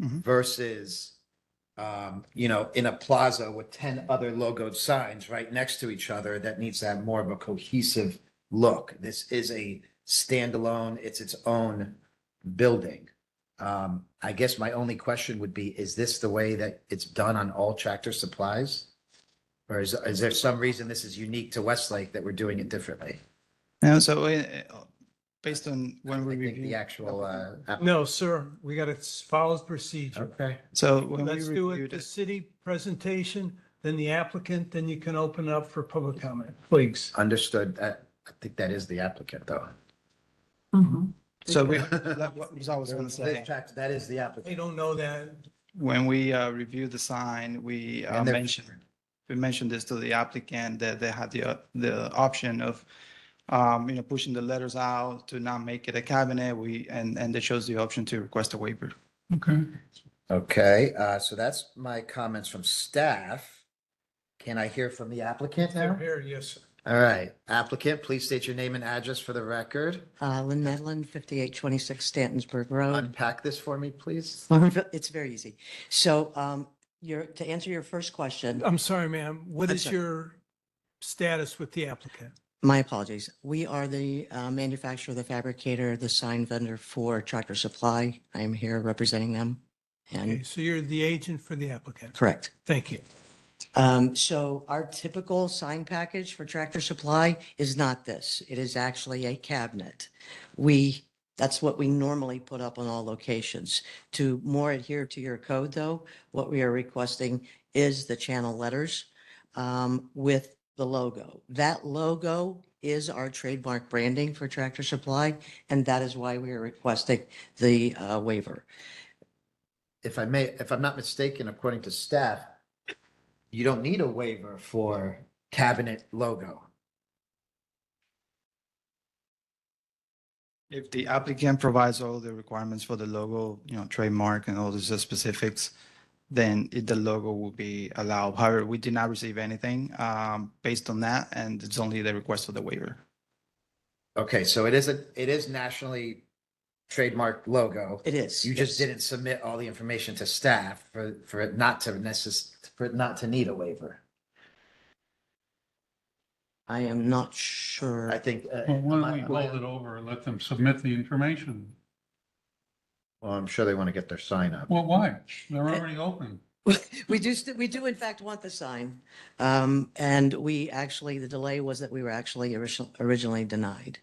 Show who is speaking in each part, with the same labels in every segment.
Speaker 1: Mhm.
Speaker 2: versus, um, you know, in a plaza with ten other logoed signs right next to each other, that needs to have more of a cohesive look. This is a standalone, it's its own building. Um, I guess my only question would be, is this the way that it's done on all tractor supplies? Or is, is there some reason this is unique to Westlake that we're doing it differently?
Speaker 1: And so uh, based on when we
Speaker 2: I think the
Speaker 1: review,
Speaker 2: actual, uh. app-
Speaker 3: No, sir, we got to follow the procedure.
Speaker 2: Okay.
Speaker 1: so when we
Speaker 3: Let's do it,
Speaker 1: reviewed
Speaker 3: the
Speaker 1: it,
Speaker 3: city presentation, then the applicant, then you can open up for public comment, please.
Speaker 2: Understood. I, I think that is the applicant though.
Speaker 1: so we, that was I was going to say.
Speaker 2: That is the
Speaker 3: They
Speaker 2: applicant.
Speaker 3: don't know that.
Speaker 1: When we uh, reviewed the sign, we uh,
Speaker 2: And they're-
Speaker 1: mentioned, we mentioned this to the applicant that they had the, uh, the option of, um, you know, pushing the letters out to not make it a cabinet. We, and, and they chose the option to request a waiver.
Speaker 3: Okay.
Speaker 2: Okay, uh, so that's my comments from staff. Can I hear from the applicant now?
Speaker 3: Here, yes, sir.
Speaker 2: All right, applicant, please state your name and address for the record.
Speaker 4: Uh, Lynn Medlin, fifty-eight twenty-six Stantonsburg Road.
Speaker 2: Unpack this for me, please.
Speaker 4: It's very easy. So, um, your, to answer your first question,
Speaker 3: I'm sorry, ma'am. What
Speaker 4: I'm
Speaker 3: is
Speaker 4: sorry.
Speaker 3: your status with the applicant?
Speaker 4: my apologies. We are the uh, manufacturer, the fabricator, the sign vendor for Tractor Supply. I am here representing them.
Speaker 3: Okay,
Speaker 4: And,
Speaker 3: so you're the agent for the applicant.
Speaker 4: correct.
Speaker 3: Thank you.
Speaker 4: Um, so our typical sign package for Tractor Supply is not this. It is actually a cabinet. We, that's what we normally put up on all locations. To more adhere to your code though, what we are requesting is the channel letters, um, with the logo. That logo is our trademark branding for Tractor Supply, and that is why we are requesting the, uh, waiver.
Speaker 2: If I may, if I'm not mistaken, according to staff, you don't need a waiver for cabinet logo.
Speaker 1: If the applicant provides all the requirements for the logo, you know, trademark and all the specifics, then it- the logo will be allowed. However, we did not receive anything um, based on that, and it's only the request for the waiver.
Speaker 2: Okay, so it is a, it is nationally trademarked logo.
Speaker 4: It is.
Speaker 2: You just
Speaker 4: yes.
Speaker 2: didn't submit all the information to staff for, for it not to necess, for it not to need a waiver.
Speaker 4: I am not sure.
Speaker 2: I think. uh,
Speaker 5: Well, why don't we
Speaker 2: my-
Speaker 5: hold it over and let them submit the information?
Speaker 2: Well, I'm sure they want to get their sign up.
Speaker 5: Well, why? They're already open.
Speaker 4: We do, st- we do in fact want the sign. Um, and we actually, the delay was that we were actually original- originally denied.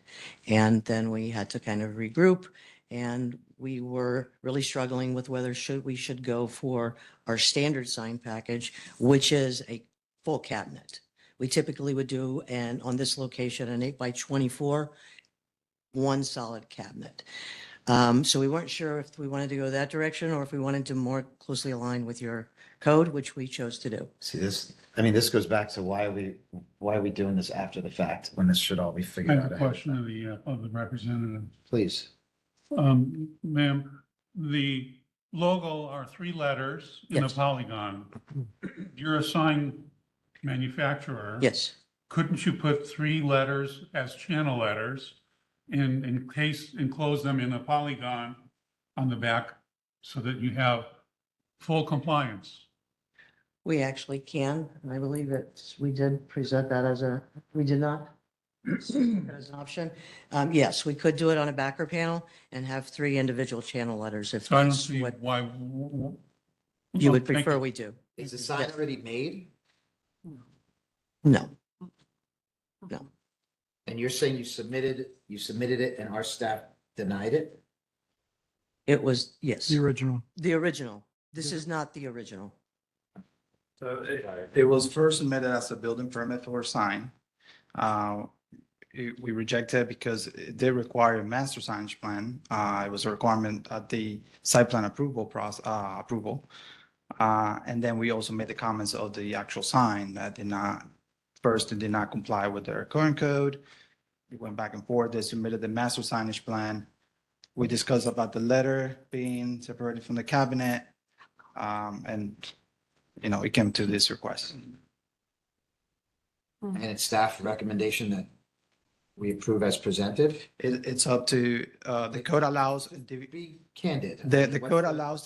Speaker 4: And then we had to kind of regroup and we were really struggling with whether should, we should go for our standard sign package, which is a full cabinet. We typically would do, and on this location, an eight by twenty-four, one solid cabinet. Um, so we weren't sure if we wanted to go that direction or if we wanted to more closely align with your code, which we chose to do.
Speaker 2: See this, I mean, this goes back to why are we, why are we doing this after the fact when this should all be
Speaker 5: I
Speaker 2: figured
Speaker 5: have
Speaker 2: out?
Speaker 5: a
Speaker 2: ahead?
Speaker 5: question of the, uh, of the representative.
Speaker 2: Please.
Speaker 5: Um, ma'am, the logo are three letters in a
Speaker 4: Yes.
Speaker 5: polygon. You're a sign manufacturer.
Speaker 4: Yes,
Speaker 5: Couldn't you put three letters as channel letters and encase, enclose them in a polygon on the back so that you have full compliance?
Speaker 4: we actually can. And I believe that we did present that as a, we did not. that As an option. Um, yes, we could do it on a backer panel and have three individual channel letters if
Speaker 5: So I don't
Speaker 4: that's
Speaker 5: see
Speaker 4: what
Speaker 5: why. w- w-
Speaker 4: you would
Speaker 5: Thank
Speaker 4: prefer we do.
Speaker 2: Is the sign already made?
Speaker 4: No,
Speaker 2: And you're saying you submitted, you submitted it and our staff denied it?
Speaker 4: it was, yes,
Speaker 3: The original.
Speaker 4: the original. This is not the original.
Speaker 1: So it, it was first submitted as a building permit for a sign. Uh, it- We rejected because it did require a master signage plan. Uh, It was a requirement at the site plan approval process, approval. Uh, And then we also made the comments of the actual sign that did not, first, it did not comply with their current code. It went back and forth. They submitted the master signage plan. We discussed about the letter being separated from the cabinet. um, And you know, it came to this request.
Speaker 2: And it's staff recommendation that we approve as presented?
Speaker 1: It, it's up to, uh, the code allows,
Speaker 2: Be candid.
Speaker 1: the, the
Speaker 2: What's
Speaker 1: code allows